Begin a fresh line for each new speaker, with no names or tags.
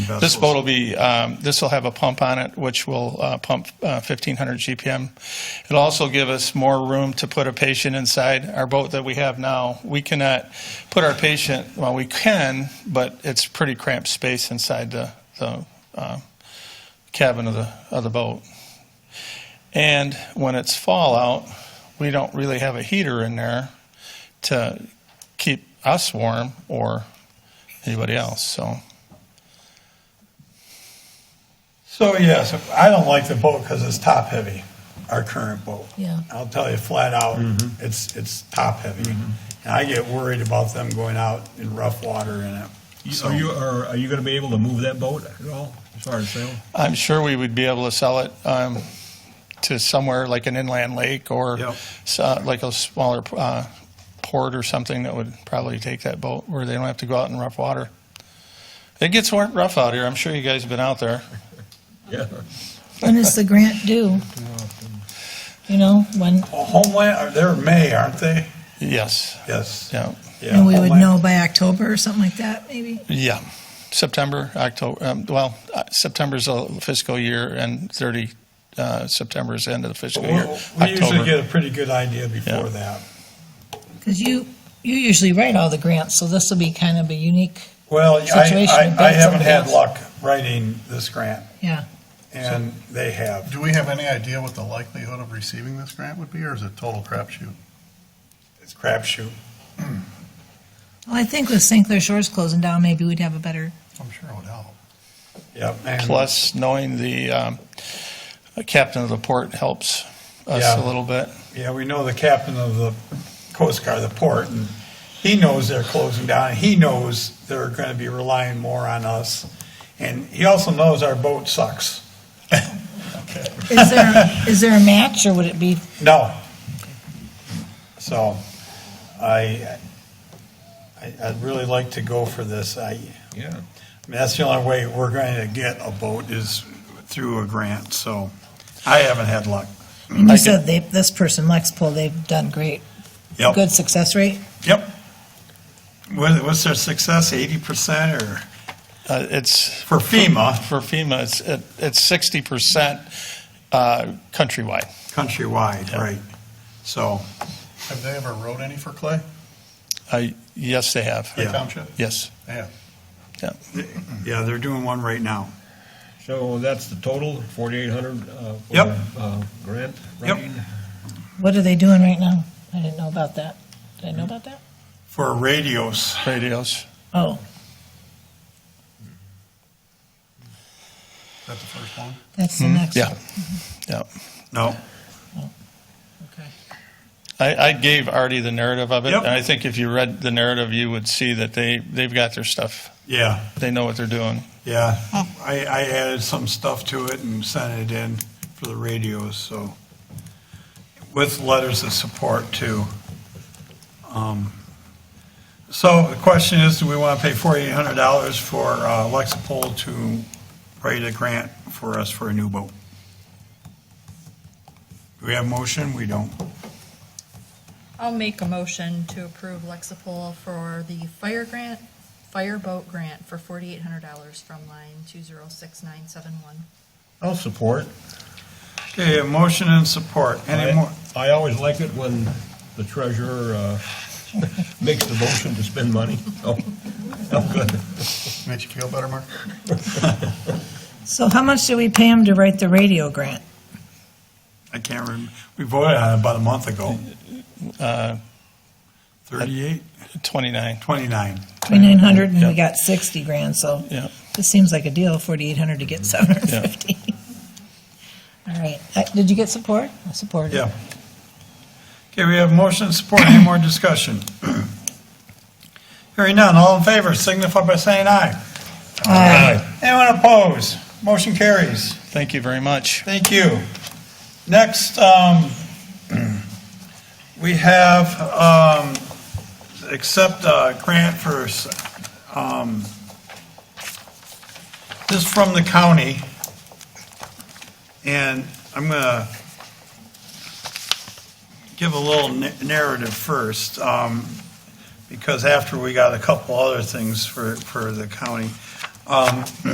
vessels.
This boat will be, um, this will have a pump on it, which will uh, pump uh, 1,500 GPM. It'll also give us more room to put a patient inside our boat that we have now. We cannot put our patient, well, we can, but it's pretty cramped space inside the the, uh, cabin of the, of the boat. And when it's fall out, we don't really have a heater in there to keep us warm or anybody else, so.
So yes, I don't like the boat because it's top heavy, our current boat.
Yeah.
I'll tell you flat out,
Mm-hmm.
it's, it's top heavy. And I get worried about them going out in rough water in it.
You- Are you, are, are you gonna be able to move that boat at all, as far as sail?
I'm sure we would be able to sell it um, to somewhere like an inland lake or
Yep.
s- uh, like a smaller uh, port or something that would probably take that boat where they don't have to go out in rough water. It gets wor- rough out here. I'm sure you guys have been out there.
Yeah.
When is the grant due? You know, when,
Well, Homeland, or they're May, aren't they?
Yes.
Yes.
Yeah.
Yeah,
and we would
Homeland.
know by October or something like that, maybe?
Yeah. September, October. Um, well, uh, September's a fiscal year, and 30 uh, September is the end of the fiscal year.
We we usually
October.
get a pretty good idea before
Yeah.
that.
Because you, you usually write all the grants, so this will be kind of a unique,
Well, I,
Situation
I- I
about
haven't had
something else.
luck writing this grant,
yeah.
and they have.
Do we have any idea what the likelihood of receiving this grant would be, or is it total crapshoot?
It's crapshoot.
Well, I think with St. Clair Shores closing down, maybe we'd have a better,
I'm sure it would help.
Yep. and-
Plus, knowing the um, captain of the port helps us a
Yeah.
little bit.
Yeah, we know the captain of the Coast Guard, the port, and he knows they're closing down. and He knows they're going to be relying more on us. And he also knows our boat sucks.
is there, is there a match or would it be,
No. So I, I, I'd really like to go for this. I, I mean,
Yeah.
that's the only way we're going to get a boat is through a grant, so I haven't had luck.
I mean, you said they, this person, Lexpol, they've done great,
Yep.
good success rate?
Yep. What, what's their success, eighty percent or,
Uh, It's,
for FEMA?
for FEMA, it's, it- it's 60% uh, countrywide.
Countrywide, right. So,
Have they ever wrote any for Clay?
I- Yes, they have.
Clay
Yeah.
Township?
Yes.
Yeah.
yeah, they're doing one right now.
So that's the total, forty-eight hundred, uh, for,
Yep.
uh, grant
Yep.
writing?
What are they doing right now? I didn't know about that. Did I know about that?
For radios,
Radios.
Oh,
Is that the first one?
that's
Hmm?
the next.
Yeah, yeah.
no,
Okay.
I, I gave Artie the narrative of it.
Yep.
And I think if you read the narrative, you would see that they, they've got their stuff.
yeah,
They know what they're doing.
yeah. I, I added some stuff to it and sent it in for the radios, so. With letters of support too. Um, So the question is, do we want to pay forty-eight hundred dollars for uh, Lexipol to write a grant for us for a new boat? Do we have motion? We don't.
I'll make a motion to approve Lexipol for the fire grant, fireboat grant for forty-eight hundred dollars from line two zero six nine seven one.
I'll support.
Okay, a motion and support. Any
Aye.
more?
I always like it when the treasurer, uh, makes the motion to spend money, so, I'm good.
Made you feel better, Mark?
So how much do we pay them to write the radio grant?
I can't remember. We voted on it about a month ago.
Uh,
38,
29,
29.
Twenty-nine hundred and
Yeah.
we got sixty grand, so
yeah.
this seems like a deal, forty-eight hundred to get seven hundred and fifty. All right, Uh, did you get support? I supported.
Yeah. Okay, we have motion and support. Any more discussion? Hearing none. All in favor signify by saying aye.
Aye.
Anyone opposed? Motion carries.
Thank you very much.
Thank you. Next, um, we have, um, accept a grant for, um, this is from the county. And I'm gonna give a little na- narrative first, um, because after we got a couple other things for, for the county. Um,